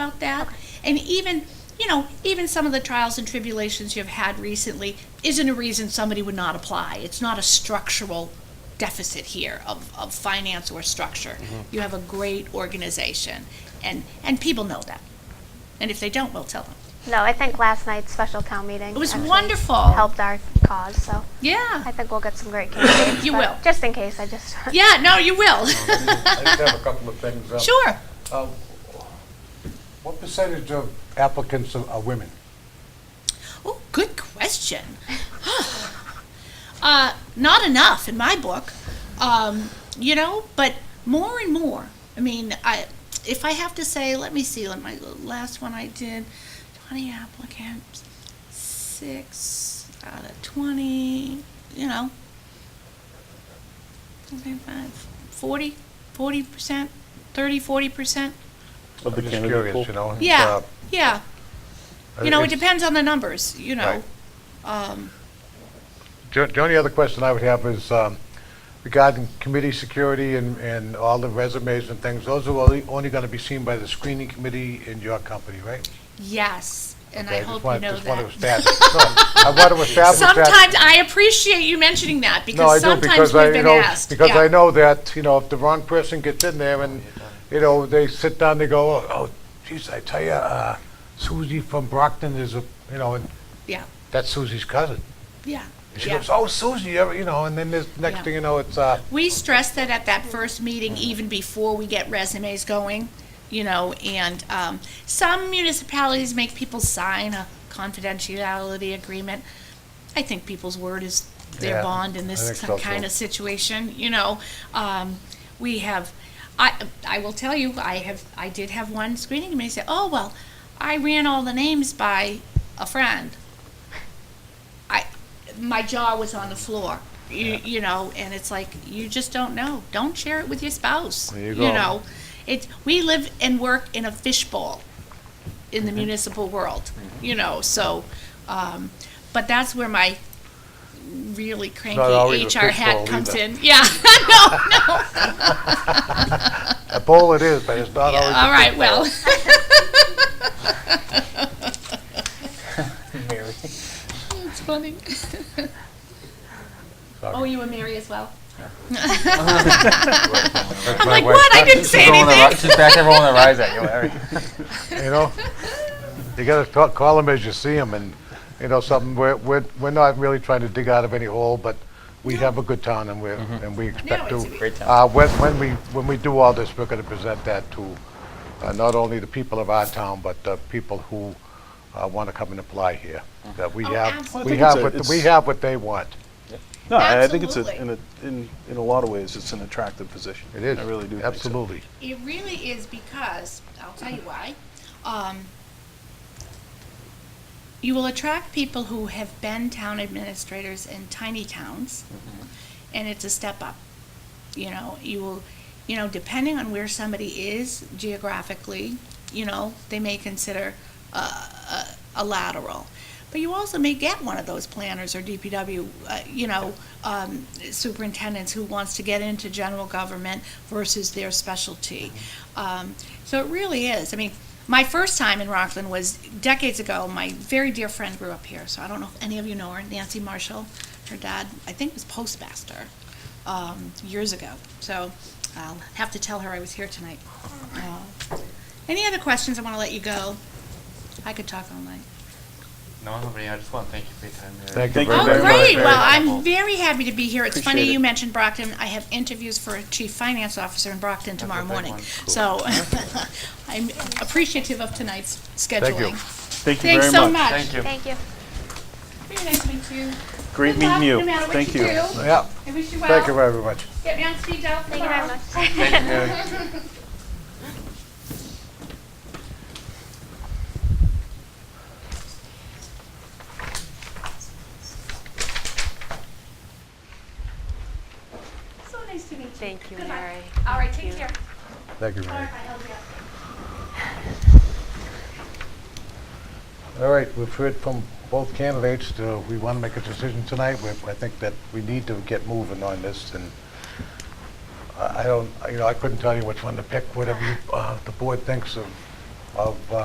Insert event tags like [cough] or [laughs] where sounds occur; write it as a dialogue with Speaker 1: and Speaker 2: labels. Speaker 1: and even you know even some of the trials and tribulations you've had recently isn't a reason somebody would not apply it's not a structural deficit here of, of finance or structure you have a great organization and and people know that and if they don't we'll tell them
Speaker 2: No, I think last night's special town meeting.
Speaker 1: It was
Speaker 2: actually
Speaker 1: wonderful.
Speaker 2: Helped our cause, so I
Speaker 1: yeah
Speaker 2: think we'll get some great candidates.
Speaker 1: You
Speaker 2: but
Speaker 1: will.
Speaker 2: Just in case, I just.
Speaker 1: yeah no you will
Speaker 3: I just have a couple of things. Uh,
Speaker 1: [laughs] sure
Speaker 3: uh, What percentage of applicants are are women?
Speaker 1: Oh, good question. uh, not enough in my book, um, you know, but more and more. I mean, I if I have to say, let me see. Like my last one I did, twenty applicants, six out of twenty. You know, 40 percent, 30, 40 percent.
Speaker 4: Of the
Speaker 3: I'm just
Speaker 4: candidate
Speaker 3: curious,
Speaker 4: pool.
Speaker 3: you know?
Speaker 1: Yeah,
Speaker 3: Uh,
Speaker 1: yeah.
Speaker 3: I
Speaker 1: You know, it
Speaker 3: think-
Speaker 1: depends on the numbers. You know.
Speaker 3: Right.
Speaker 1: Um,
Speaker 3: Jo- The only other question I would have is um, regarding committee security and, and all the resumes and things, those are only, only going to be seen by the screening committee in your company, right?
Speaker 1: Yes, and
Speaker 3: Okay,
Speaker 1: I
Speaker 3: just
Speaker 1: hope you
Speaker 3: wanna-
Speaker 1: know
Speaker 3: just wanna
Speaker 1: that.
Speaker 3: establish- no, I want
Speaker 1: [laughs]
Speaker 3: to establish that.
Speaker 1: Sometimes I appreciate you mentioning that
Speaker 3: No, I
Speaker 1: because
Speaker 3: do,
Speaker 1: sometimes
Speaker 3: because I,
Speaker 1: we've
Speaker 3: you
Speaker 1: been
Speaker 3: know,
Speaker 1: asked.
Speaker 3: because
Speaker 1: Yeah.
Speaker 3: I know that, you know, if the wrong person gets in there and, you know, they sit down, they go, "Oh, oh, geez, I tell you, uh, Susie from Brockton is a, you know, and
Speaker 1: Yeah,
Speaker 3: that's Susie's cousin.
Speaker 1: yeah,
Speaker 3: And She
Speaker 1: yeah.
Speaker 3: goes, oh, Susie, you're-" you know, and then this, next
Speaker 1: Yeah.
Speaker 3: thing you know, it's, uh,
Speaker 1: We stress that at that first meeting, even before we get resumes going, you know, and um, some municipalities make people sign a confidentiality agreement. I think people's word is their
Speaker 3: Yeah,
Speaker 1: bond in
Speaker 3: I
Speaker 1: this
Speaker 3: think so,
Speaker 1: kind
Speaker 3: too.
Speaker 1: of situation, you know. Um, We have, I, I will tell you, I have, I did have one screening committee say, oh, well, I ran all the names by a friend. I, my jaw was on the floor. You, you know, and it's like you just don't know. Don't share it with your spouse.
Speaker 3: There you go.
Speaker 1: know, it's we live and work in a fishbowl in
Speaker 3: Mm-hmm.
Speaker 1: the municipal world. You know, so, um, but that's where my really cranky
Speaker 3: always a
Speaker 1: HR hat
Speaker 3: fishbowl
Speaker 1: comes
Speaker 3: either.
Speaker 1: in. Yeah, [laughs] no, no.
Speaker 3: a bowl it is, but it's not always.
Speaker 1: All right, well,
Speaker 4: Mary.
Speaker 1: it's funny. Oh, you were Mary as well.
Speaker 4: I'm
Speaker 1: like, what? I didn't say anything.
Speaker 4: She's back there rolling her eyes at you,
Speaker 5: [laughs]
Speaker 4: Larry.
Speaker 3: You know, you gotta ta- call them as you see them and, you know, something, we're, we're, we're not really trying to dig out of any hole, but we have a good town and we're, and we expect
Speaker 1: Mm-hmm. No,
Speaker 3: to.
Speaker 1: it's-
Speaker 4: Great town.
Speaker 3: Uh, when, when we, when we do all this, we're gonna present that to, uh, not only the people of our town, but, uh, people who, uh, wanna come and apply here. That we
Speaker 1: Oh,
Speaker 3: have,
Speaker 1: absolutely.
Speaker 3: we
Speaker 4: Well, I
Speaker 3: have,
Speaker 4: think it's
Speaker 3: what
Speaker 4: a-
Speaker 3: we
Speaker 4: it's-
Speaker 3: have what they want.
Speaker 4: No, I I think it's, a- in,
Speaker 1: Absolutely.
Speaker 4: a- in, in a lot of ways, it's an attractive position.
Speaker 3: It is.
Speaker 4: I really do think so.
Speaker 3: Absolutely.
Speaker 1: It really is because, I'll tell you why. Um, you will attract people who have been town administrators in tiny towns, and it's a step up. You know, you will, you know, depending on where somebody is geographically, you know, they may consider uh, a, a lateral. But you also may get one of those planners or DPW, uh, you know, um, superintendents who wants to get into general government versus their specialty. Um, so it really is. I mean, my first time in Rockland was decades ago. My very dear friend grew up here, so I don't know if any of you know her, Nancy Marshall. Her dad, I think, was postmaster um, years ago. So I'll have to tell her I was here tonight. Uh, any other questions? I want to let you go. I could talk all night.
Speaker 5: No, nobody. I just want to thank you for your time. Mary.
Speaker 3: Thank you
Speaker 4: Thank
Speaker 3: very
Speaker 1: Oh,
Speaker 3: much.
Speaker 4: you very
Speaker 1: great.
Speaker 4: much.
Speaker 1: Well,
Speaker 5: Very
Speaker 1: I'm
Speaker 5: helpful.
Speaker 1: very happy to be here. It's funny
Speaker 4: Appreciate it.
Speaker 1: you mentioned Brockton. I have interviews for a chief finance officer in Brockton
Speaker 5: a
Speaker 1: tomorrow
Speaker 5: big
Speaker 1: morning.
Speaker 5: one. Cool.
Speaker 1: So [laughs] I'm appreciative of tonight's
Speaker 3: Thank you.
Speaker 1: scheduling.
Speaker 4: Thank you
Speaker 1: Thanks
Speaker 4: very
Speaker 1: so
Speaker 4: much.
Speaker 1: much.
Speaker 5: Thank you.
Speaker 2: Thank you.
Speaker 1: Very nice to meet you.
Speaker 4: Great
Speaker 1: Good luck,
Speaker 4: meeting you.
Speaker 1: No matter what
Speaker 4: Thank
Speaker 1: you,
Speaker 4: you.
Speaker 1: do.
Speaker 3: Yeah,
Speaker 1: I wish you well.
Speaker 3: thank you very much.
Speaker 1: Get me on speed dial
Speaker 2: Thank you very
Speaker 1: tomorrow.
Speaker 2: much.
Speaker 5: Thank you, Mary.
Speaker 1: So nice to meet you.
Speaker 2: Thank you,
Speaker 1: Good luck.
Speaker 2: Mary.
Speaker 1: All right, take care.
Speaker 3: Thank you,
Speaker 1: Sorry
Speaker 3: Mary.
Speaker 1: if I held you up.
Speaker 3: All right, we've heard from both candidates. Uh, We want to make a decision tonight. We- I think that we need to get moving on this, and I I don't, you know, I couldn't tell you which one to pick, whatever you, uh, the board thinks of, of uh,